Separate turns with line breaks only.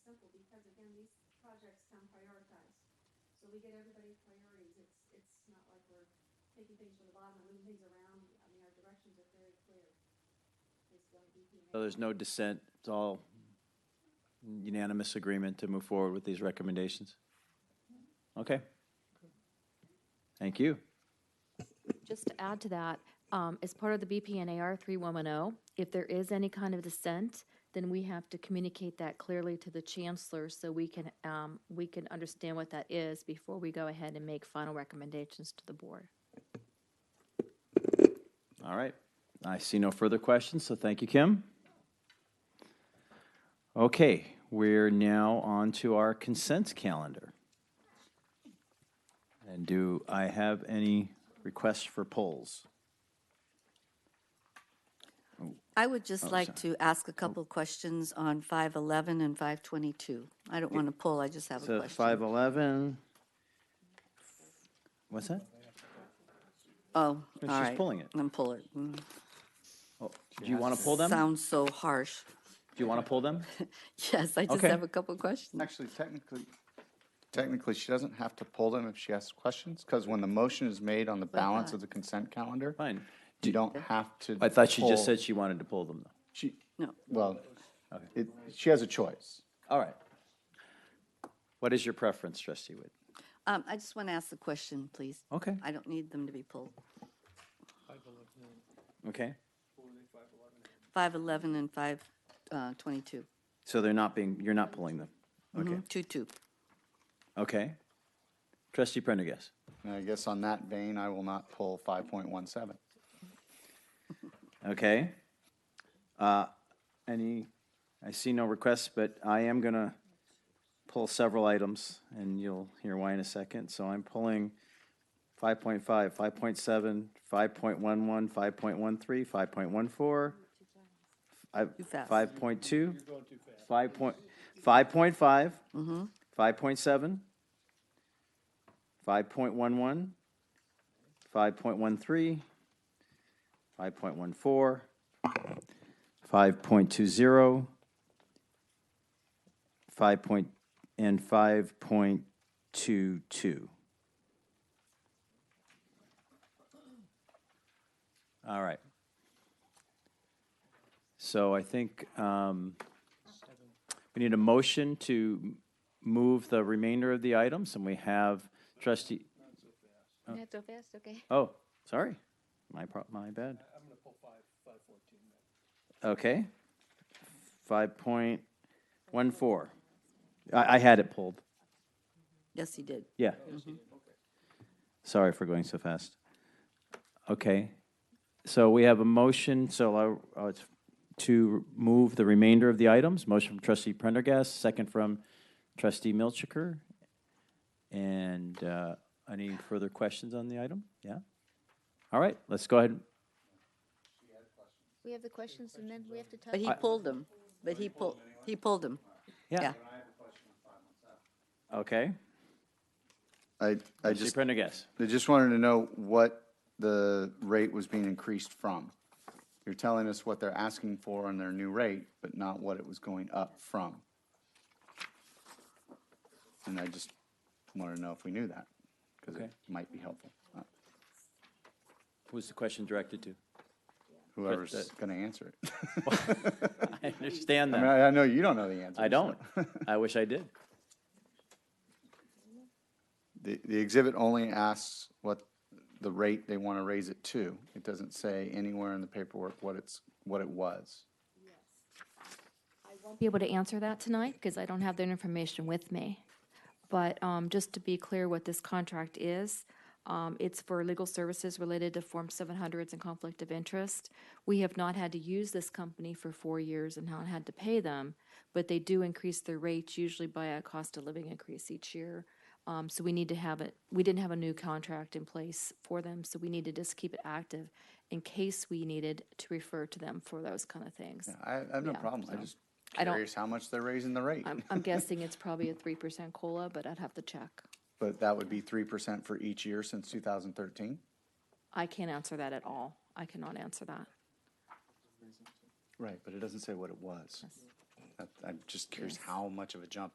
districts town prioritize. So we get everybody's priorities, it's, it's not like we're taking things from the bottom and moving things around, I mean, our directions are very clear. Based on DPA.
So there's no dissent, it's all unanimous agreement to move forward with these recommendations? Okay. Thank you.
Just to add to that, um, as part of the BPNAR 3110, oh, if there is any kind of dissent, then we have to communicate that clearly to the chancellor so we can, um, we can understand what that is before we go ahead and make final recommendations to the board.
All right. I see no further questions, so thank you, Kim. Okay, we're now on to our consent calendar. And do I have any requests for polls?
I would just like
Oh, sorry.
to ask a couple of questions on 511 and 522. I don't want to pull, I just have a
So
question.
511. What's that?
Oh, all
she's
right.
pulling it.
I'm pulling it. Mm.
Oh, Do you want to pull them? Do
Sounds so harsh.
you want to pull them?
Yes, I just
Okay.
have a couple of questions.
Actually, technically, technically, she doesn't have to pull them if she asks questions, because when the motion is made on the balance of the consent calendar,
Fine.
you don't have to.
I thought she just
pull-
said she wanted to pull them, though.
She,
No.
well, it, she has a choice.
All right. What is your preference, trustee Witt?
Um, I just want to ask the question, please.
Okay,
I don't need them to be pulled.
okay.
511 and uh, 522.
So they're not being, you're not pulling them? Okay,
Mm-hmm. Two, two.
okay. Trustee Prendergast?
And I guess on that vein, I will not pull five point one seven.
Okay. Uh, Any, I see no requests, but I am going to pull several items, and you'll hear why in a second. So I'm pulling 5.5, 5.7, 5.11, 5.13, 5.14, I-
Too fast.
5.2. You're going too fast. 5 point, 5.5.
Mm-hmm.
5.7. 5.11. 5.13. 5.14, 5.20, 5. point- and 5.22. All right. So I think um, we need a motion to m- move the remainder of the items, and we have trustee,
That's so fast, okay.
oh, sorry, my, pro- my bad.
I'm gonna pull five, five fourteen then.
Okay. Five point one four. I, I had it pulled.
Yes, he did.
Yeah. Mm-hmm. Sorry for going so fast. Okay. So we have a motion, so I- uh, it's to move the remainder of the items. Motion from trustee Prendergast, second from trustee Milchiker. And, uh, any further questions on the item? Yeah? All right, let's go ahead.
We have the questions and then we have to touch.
But he pulled them. But he pulled, he pulled them.
Yeah.
Yeah.
Okay.
I, I
Trustee
just,
Prendergast.
I just wanted to know what the rate was being increased from. You're telling us what they're asking for on their new rate, but not what it was going up from. And I just wanted to know if we knew that, because it
Okay.
might be helpful. Uh,
Who's the question directed to?
Whoever's
that-
gonna answer it.
I understand
I mean,
that.
I, I know you don't know the answer.
I
so-
don't. I wish I did.
The, the exhibit only asks what the rate they want to raise it to. It doesn't say anywhere in the paperwork what it's, what it was.
be able to answer that tonight because I don't have that information with me. But um, just to be clear what this contract is, um, it's for legal services related to Form 700s and conflict of interest. We have not had to use this company for four years and not had to pay them, but they do increase their rates usually by a cost of living increase each year. Um, So we need to have it, we didn't have a new contract in place for them, so we need to just keep it active in case we needed to refer to them for those kind of things.
I, I have no
Yeah,
problem.
so
I'm just
I don't-
curious how much they're raising the rate.
I'm, I'm guessing it's probably a three percent cola, but I'd have to check.
But that would be three percent for each year since two thousand thirteen?
I can't answer that at all. I cannot answer that.
Right, but it doesn't say what it was. That- I'm just curious how much of a jump